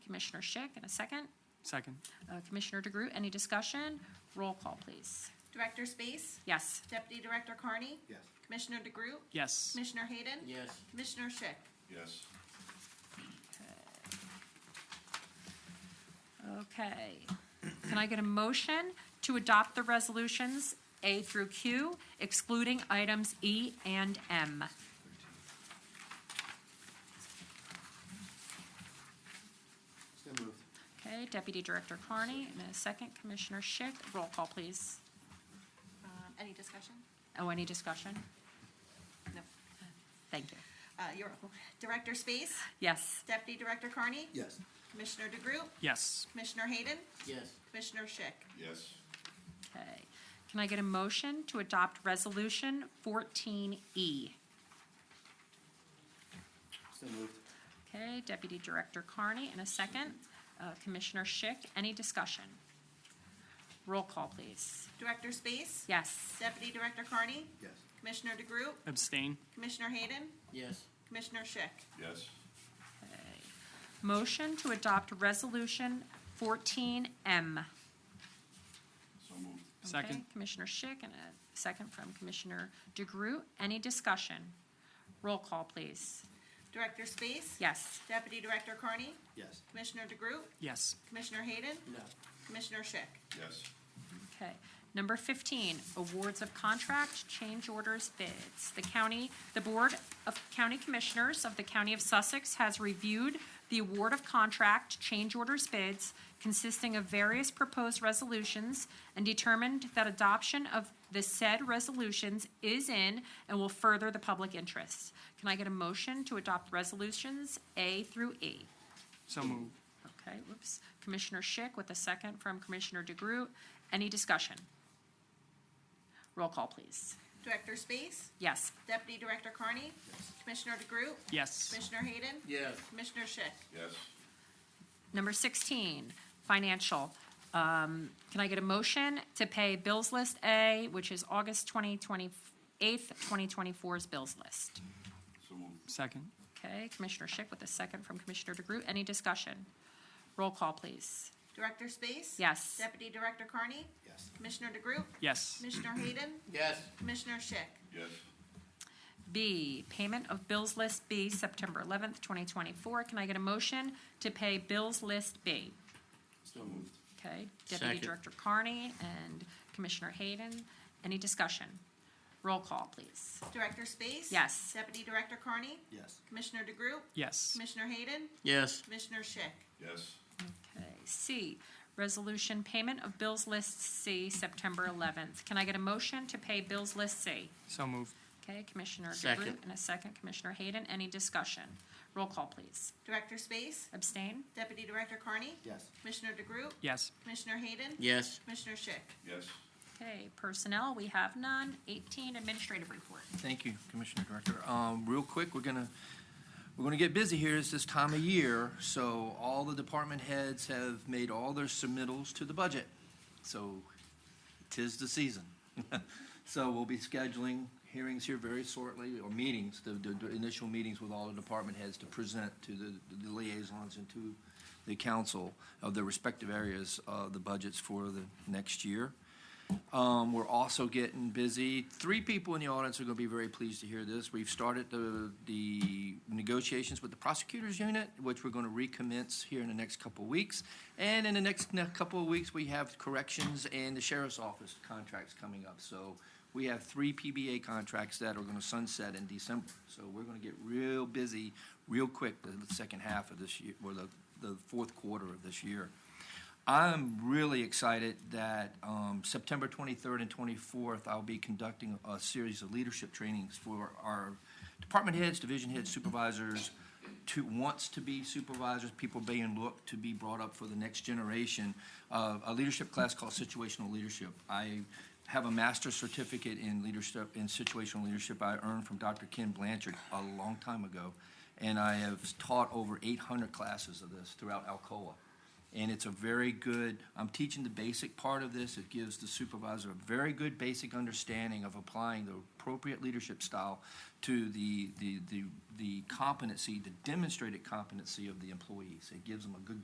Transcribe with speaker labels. Speaker 1: Commissioner Schick, and a second.
Speaker 2: Second.
Speaker 1: Uh, Commissioner DeGroot, any discussion? Roll call, please.
Speaker 3: Director Space?
Speaker 1: Yes.
Speaker 3: Deputy Director Carney?
Speaker 4: Yes.
Speaker 3: Commissioner DeGroot?
Speaker 2: Yes.
Speaker 3: Commissioner Hayden?
Speaker 5: Yes.
Speaker 3: Commissioner Schick?
Speaker 4: Yes.
Speaker 1: Okay. Can I get a motion to adopt the resolutions A through Q excluding items E and M?
Speaker 4: So moved.
Speaker 1: Okay, Deputy Director Carney, and a second. Commissioner Schick, roll call, please.
Speaker 3: Um, Any discussion?
Speaker 1: Oh, any discussion?
Speaker 3: No.
Speaker 1: Thank you.
Speaker 3: Uh, You're welcome. Director Space?
Speaker 1: Yes.
Speaker 3: Deputy Director Carney?
Speaker 4: Yes.
Speaker 3: Commissioner DeGroot?
Speaker 2: Yes.
Speaker 3: Commissioner Hayden?
Speaker 5: Yes.
Speaker 3: Commissioner Schick?
Speaker 4: Yes.
Speaker 1: Okay. Can I get a motion to adopt Resolution E? 14E?
Speaker 5: So moved.
Speaker 1: Okay, Deputy Director Carney in a second. Uh, Commissioner Schick, any discussion? Roll call, please.
Speaker 3: Director Space?
Speaker 1: Yes.
Speaker 3: Deputy Director Carney?
Speaker 4: Yes.
Speaker 3: Commissioner DeGroot?
Speaker 2: Abstain.
Speaker 3: Commissioner Hayden?
Speaker 5: Yes.
Speaker 3: Commissioner Schick?
Speaker 4: Yes.
Speaker 1: Okay. Motion to adopt Resolution 14M.
Speaker 4: So moved.
Speaker 1: Okay,
Speaker 2: Second.
Speaker 1: Commissioner Schick and a second from Commissioner DeGroot. Any discussion? Roll call, please.
Speaker 3: Director Space?
Speaker 1: Yes.
Speaker 3: Deputy Director Carney?
Speaker 4: Yes.
Speaker 3: Commissioner DeGroot?
Speaker 2: Yes.
Speaker 3: Commissioner Hayden?
Speaker 5: No.
Speaker 3: Commissioner Schick?
Speaker 4: Yes.
Speaker 1: Okay. Number 15, awards of contract, change orders, bids. The county, the Board of County Commissioners of the County of Sussex has reviewed the award of contract, change orders, bids consisting of various proposed resolutions and determined that adoption of the said resolutions is in and will further the public interest. Can I get a motion to adopt resolutions A through E?
Speaker 2: So moved.
Speaker 1: Okay, whoops. Commissioner Schick with a second from Commissioner DeGroot. Any discussion? Roll call, please.
Speaker 3: Director Space?
Speaker 1: Yes.
Speaker 3: Deputy Director Carney? Commissioner DeGroot?
Speaker 2: Yes.
Speaker 3: Commissioner Hayden?
Speaker 5: Yes.
Speaker 3: Commissioner Schick?
Speaker 4: Yes.
Speaker 1: Number 16, financial. Um, Can I get a motion to pay Bills List A, which is August 2028th, 2024's bills list?
Speaker 4: So moved.
Speaker 2: Second.
Speaker 1: Okay, Commissioner Schick with a second from Commissioner DeGroot. Any discussion? Roll call, please.
Speaker 3: Director Space?
Speaker 1: Yes.
Speaker 3: Deputy Director Carney?
Speaker 4: Yes.
Speaker 3: Commissioner DeGroot?
Speaker 2: Yes.
Speaker 3: Commissioner Hayden?
Speaker 5: Yes.
Speaker 3: Commissioner Schick?
Speaker 4: Yes.
Speaker 1: B, payment of bills list B, September 11th, 2024. Can I get a motion to pay bills list B?
Speaker 5: So moved.
Speaker 1: Okay, Deputy
Speaker 5: Second.
Speaker 1: Director Carney and Commissioner Hayden. Any discussion? Roll call, please.
Speaker 3: Director Space?
Speaker 1: Yes.
Speaker 3: Deputy Director Carney?
Speaker 4: Yes.
Speaker 3: Commissioner DeGroot?
Speaker 2: Yes.
Speaker 3: Commissioner Hayden?
Speaker 5: Yes.
Speaker 3: Commissioner Schick?
Speaker 4: Yes.
Speaker 1: Okay, C, resolution payment of bills list C, September 11th. Can I get a motion to pay bills list C?
Speaker 2: So moved.
Speaker 1: Okay, Commissioner
Speaker 5: Second.
Speaker 1: DeGroot and a second, Commissioner Hayden. Any discussion? Roll call, please.
Speaker 3: Director Space?
Speaker 1: Abstain?
Speaker 3: Deputy Director Carney?
Speaker 4: Yes.
Speaker 3: Commissioner DeGroot?
Speaker 2: Yes.
Speaker 3: Commissioner Hayden?
Speaker 5: Yes.
Speaker 3: Commissioner Schick?
Speaker 4: Yes.
Speaker 1: Okay, personnel, we have none. 18, administrative report.
Speaker 6: Thank you, Commissioner Director. Um, Real quick, we're gonna, we're gonna get busy here. It's this time of year, so all the department heads have made all their submittals to the budget. So tis the season. So we'll be scheduling hearings here very shortly, or meetings, the, the the initial meetings with all the department heads to present to the the liaisons and to the council of their respective areas, uh, the budgets for the next year. Um, we're also getting busy. Three people in the audience are going to be very pleased to hear this. We've started the, the negotiations with the prosecutors unit, which we're going to recommence here in the next couple of weeks. And in the next, ne- couple of weeks, we have corrections and the sheriff's office contracts coming up. So we have three PBA contracts that are going to sunset in December. So we're going to get real busy, real quick, the the second half of this year, or the, the fourth quarter of this year. I'm really excited that um, September 23rd and 24th, I'll be conducting a series of leadership trainings for our department heads, division heads, supervisors, to, wants to be supervisors, people being looked to be brought up for the next generation, uh, a leadership class called Situational Leadership. I have a master's certificate in leadership, in situational leadership I earned from Dr. Ken Blanchard a long time ago, and I have taught over 800 classes of this throughout Alcoa. And it's a very good, I'm teaching the basic part of this. It gives the supervisor a very good basic understanding of applying the appropriate leadership style to the, the, the, the competency, the demonstrated competency of the employees. It gives them a good